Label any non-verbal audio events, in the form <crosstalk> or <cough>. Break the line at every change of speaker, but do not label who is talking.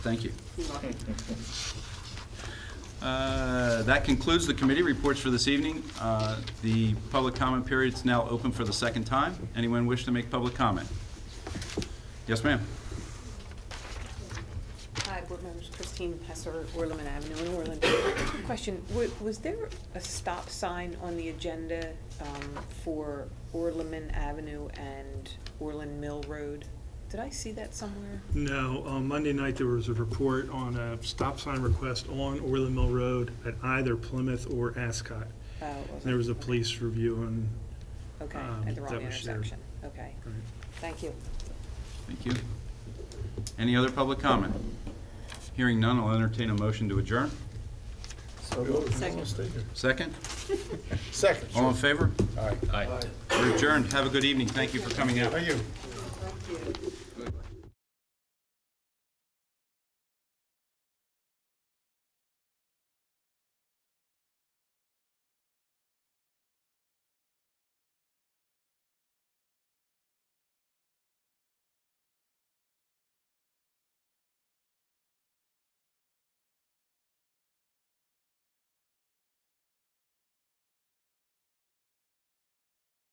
Thank you. Uh, That concludes the committee reports for this evening. Uh, The public comment period is now open for the second time. Anyone wish to make public comment? Yes, ma'am.
Hi, Board members, Christine Pesser, Orleman Avenue in Orland. <coughs> Question, wa- was there a stop sign on the agenda um, for Orleman Avenue and Orland Mill Road? Did I see that somewhere?
No, on Monday night, there was a report on a stop sign request on Orland Mill Road at either Plymouth or Ascot.
Oh, it wasn't.
There was a police review and,
Okay,
um,
at the wrong
that was shared.
intersection. Okay, thank you.
Thank you. Any other public comment? Hearing none, I'll entertain a motion to adjourn.
Second.
Second?
Second.
All in favor?
Aye.
We're adjourned. Have a good evening. Thank you for coming out.
Thank you.
Thank you.